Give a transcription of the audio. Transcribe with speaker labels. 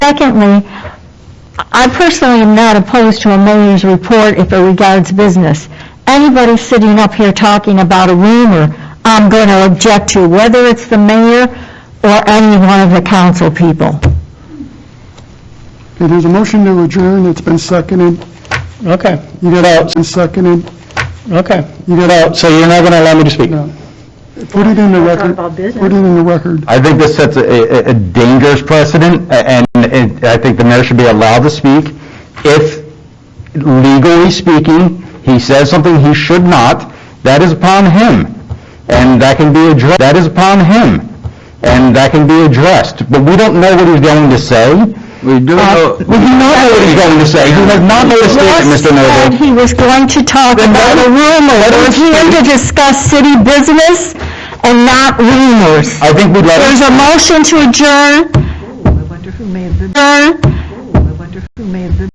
Speaker 1: Secondly, I personally am not opposed to a mayor's report if it regards business. Anybody sitting up here talking about a rumor, I'm going to object to, whether it's the mayor or any one of the council people.
Speaker 2: Okay, there's a motion to adjourn, it's been seconded,
Speaker 3: Okay,
Speaker 2: you got out, it's been seconded,
Speaker 3: okay.
Speaker 2: you got out,
Speaker 3: So you're not going to allow me to speak?
Speaker 2: no. Put it in the record, put it in the record.
Speaker 4: I think this sets a, a- a dangerous precedent, a- and it- I think the mayor should be allowed to speak. If legally speaking, he says something he should not, that is upon him, and that can be addressed, that is upon him, and that can be addressed. But we don't know what he's going to say. We do know. We do not know what he's going to say. He does not know the statement,
Speaker 1: Russ
Speaker 4: Mr.
Speaker 1: said
Speaker 4: Noble.
Speaker 1: he was going to talk about a rumor.
Speaker 4: let him
Speaker 1: We're here to
Speaker 4: speak.
Speaker 1: discuss city business and not rumors.
Speaker 4: I think we'd let him.
Speaker 1: There's a motion to adjourn.
Speaker 5: Oh, I wonder who may have been,
Speaker 1: Adjourn.
Speaker 5: I wonder who may have been.